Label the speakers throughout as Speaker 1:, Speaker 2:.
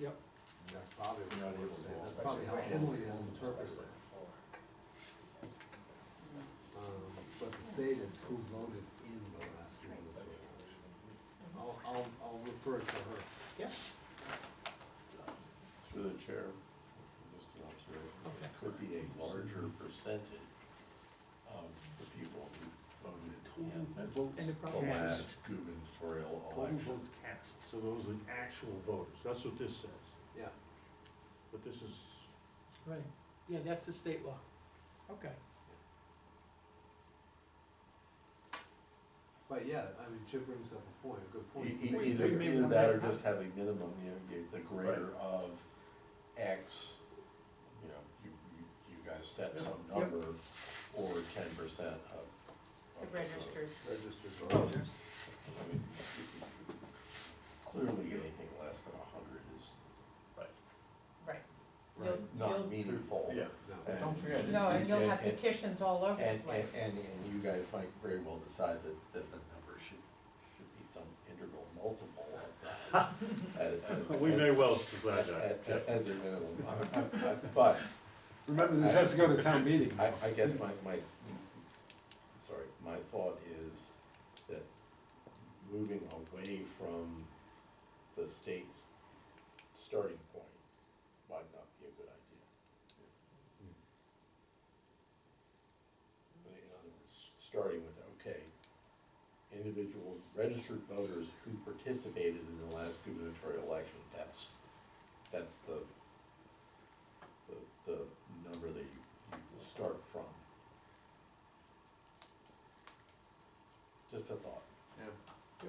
Speaker 1: Yep.
Speaker 2: That's probably
Speaker 3: You're
Speaker 2: what
Speaker 3: not
Speaker 2: I
Speaker 3: able
Speaker 2: would
Speaker 3: to
Speaker 2: say,
Speaker 3: walk.
Speaker 2: that's probably how Emily is interpreted. Um, but the state is who voted in the last gubernatorial election. I'll, I'll, I'll refer it to her.
Speaker 1: Yep.
Speaker 3: Through the chair, just an observation, it could be a larger percentage of the people who voted in
Speaker 1: And it
Speaker 3: the
Speaker 1: probably
Speaker 3: last gubernatorial
Speaker 4: Total
Speaker 3: election.
Speaker 4: votes cast, so those are actual voters, that's what this says,
Speaker 2: Yeah.
Speaker 4: but this is,
Speaker 1: Right, yeah, that's the state law. Okay.
Speaker 2: But yeah, I mean, Chip brings up a point, a good point.
Speaker 3: E- e-
Speaker 1: Wait,
Speaker 3: Either,
Speaker 1: wait, wait,
Speaker 3: either
Speaker 1: wait,
Speaker 3: that or
Speaker 1: wait.
Speaker 3: just have a minimum, you know, you- the greater of X, you know, you, you, you guys set some
Speaker 1: Yeah. Yep.
Speaker 3: number or ten percent of.
Speaker 5: The
Speaker 3: of vote.
Speaker 5: registered
Speaker 2: Registered voter.
Speaker 5: voters.
Speaker 3: I mean, Clearly, anything less than a hundred is
Speaker 5: Right.
Speaker 2: Right.
Speaker 3: not
Speaker 5: You'll-
Speaker 3: meaningful.
Speaker 2: No.
Speaker 3: And- Don't forget.
Speaker 5: No, and you'll have
Speaker 3: And-
Speaker 5: petitions all over the
Speaker 3: And, and,
Speaker 5: place.
Speaker 3: and and you guys might very well decide that, that the number should, should be some integral multiple of that. as- as-
Speaker 4: we may
Speaker 3: as-
Speaker 4: well decide that,
Speaker 3: as-
Speaker 4: yeah.
Speaker 3: As a minimum, I- I- I- but
Speaker 2: Remember, this has to go to town meeting.
Speaker 3: I, I guess my, my, sorry, my thought is that moving away from the state's starting point might not be a good idea. In other words, starting with, okay, individuals, registered voters who participated in the last gubernatorial election, that's, that's the, the, the number that you you start from. Just a thought.
Speaker 2: Yeah.
Speaker 1: Yeah.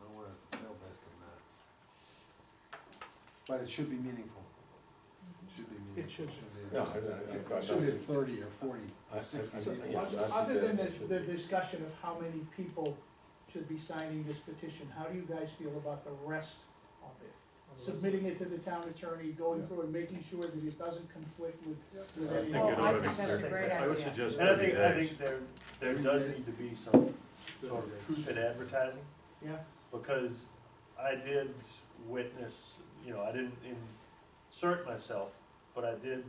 Speaker 2: I don't wanna fail less than that. But it should be meaningful.
Speaker 5: Mhm.
Speaker 2: It should be meaningful.
Speaker 1: It should.
Speaker 2: be-
Speaker 3: No, I- I- I-
Speaker 2: It should be thirty or forty
Speaker 3: I- I-
Speaker 2: or sixty
Speaker 3: I-
Speaker 1: So,
Speaker 2: people.
Speaker 3: yeah, but I
Speaker 1: other than
Speaker 3: suggest it
Speaker 1: the,
Speaker 3: should
Speaker 1: the
Speaker 3: be.
Speaker 1: discussion of how many people should be signing this petition, how do you guys feel about the rest of it? Submitting it to the town attorney, going through and making sure that it doesn't conflict with, with
Speaker 4: I
Speaker 1: any.
Speaker 4: think
Speaker 5: Oh,
Speaker 4: it
Speaker 5: I
Speaker 4: ought to
Speaker 5: think
Speaker 4: be
Speaker 5: that's a
Speaker 4: 30.
Speaker 5: great
Speaker 4: I would
Speaker 5: idea.
Speaker 4: suggest
Speaker 6: And I
Speaker 4: thirty
Speaker 6: think, I think
Speaker 4: days.
Speaker 6: there, there
Speaker 2: Thirty
Speaker 6: does
Speaker 2: days.
Speaker 6: need to be some sort
Speaker 2: Thirty days.
Speaker 6: of truth in advertising,
Speaker 1: Yeah,
Speaker 6: because I did witness, you know, I didn't insert myself, but I did,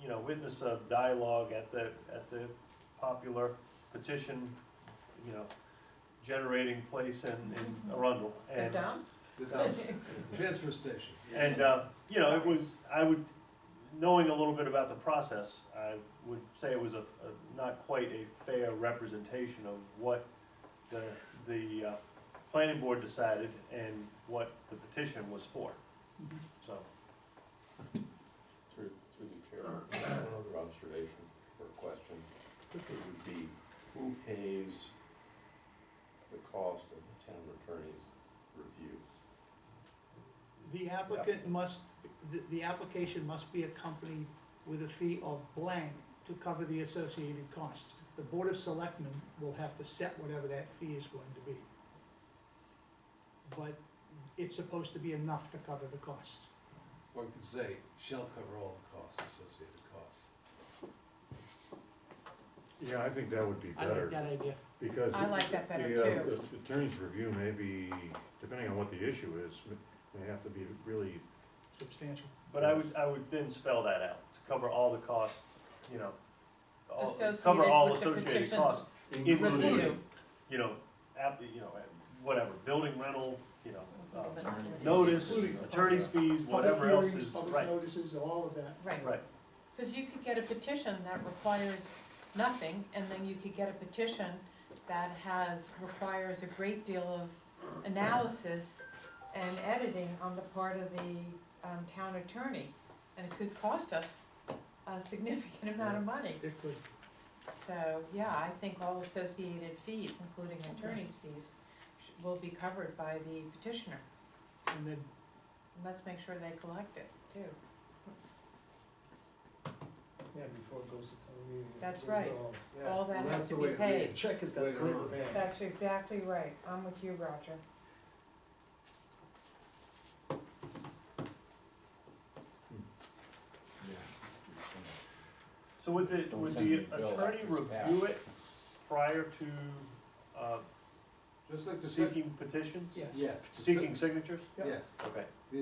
Speaker 6: you know, witness a dialogue at the, at the popular petition, you know, generating place in, in Arundel,
Speaker 5: They're
Speaker 6: and
Speaker 5: dumb?
Speaker 2: Without- Transfer station.
Speaker 6: And, uh, you know, it was, I would, knowing a little bit about the process, I would say it was a, a- not quite a fair representation of what the, the, uh, planning board decided and what the petition was for, so.
Speaker 3: Through, through the chair, one other observation or question, it would be, who pays the cost of the town attorney's review?
Speaker 1: the applicant must, the, the application must be accompanied with a fee of blank to cover the associated costs. The Board of Selectmen will have to set whatever that fee is going to be. But it's supposed to be enough to cover the cost.
Speaker 2: Or you could say, shall cover all the costs, associated costs.
Speaker 4: Yeah, I think that would be
Speaker 1: I like
Speaker 4: better,
Speaker 1: that idea.
Speaker 4: because.
Speaker 5: I like that better
Speaker 4: the, uh,
Speaker 5: too.
Speaker 4: the Attorney's review may be, depending on what the issue is, may have to be really,
Speaker 1: Substantial.
Speaker 6: But I would, I would then spell that out, to cover all the costs, you know, all, cover
Speaker 5: Associated
Speaker 6: all
Speaker 5: with the
Speaker 6: associated
Speaker 5: petition.
Speaker 6: costs, including,
Speaker 5: Review.
Speaker 6: you know, app, you know, whatever, building rental, you know, uh, notice,
Speaker 5: Notice.
Speaker 6: attorney's fees, whatever else is,
Speaker 1: Public
Speaker 6: right,
Speaker 1: hearings, public notices, all of that.
Speaker 5: Right,
Speaker 6: right.
Speaker 5: because you could get a petition that requires nothing, and then you could get a petition that has, requires a great deal of analysis and editing on the part of the um, town attorney, and it could cost us a significant amount of money.
Speaker 1: It could,
Speaker 5: So, yeah, I think all associated fees, including attorney's fees, sh- will be covered by the petitioner.
Speaker 1: and then
Speaker 5: And Let's make sure they collect it, too.
Speaker 7: Yeah, before it goes to town meeting. it
Speaker 5: That's
Speaker 7: goes
Speaker 5: right.
Speaker 7: all- yeah.
Speaker 5: All
Speaker 2: Well,
Speaker 5: that
Speaker 2: that's
Speaker 5: has
Speaker 2: the
Speaker 5: to be
Speaker 2: way it
Speaker 5: paid.
Speaker 2: reads.
Speaker 7: Check has got to
Speaker 2: Later
Speaker 7: clear the
Speaker 2: on.
Speaker 7: bank.
Speaker 5: That's exactly right. I'm with you, Roger.
Speaker 6: So would the,
Speaker 8: Don't
Speaker 6: would
Speaker 8: send me
Speaker 6: the
Speaker 8: the bill
Speaker 6: attorney
Speaker 8: after it's
Speaker 6: review it prior to, uh,
Speaker 2: Just like the. sec-
Speaker 6: seeking petitions?
Speaker 1: Yes.
Speaker 2: Yes. the sec-
Speaker 6: Seeking signatures?
Speaker 2: Yes.
Speaker 6: Okay.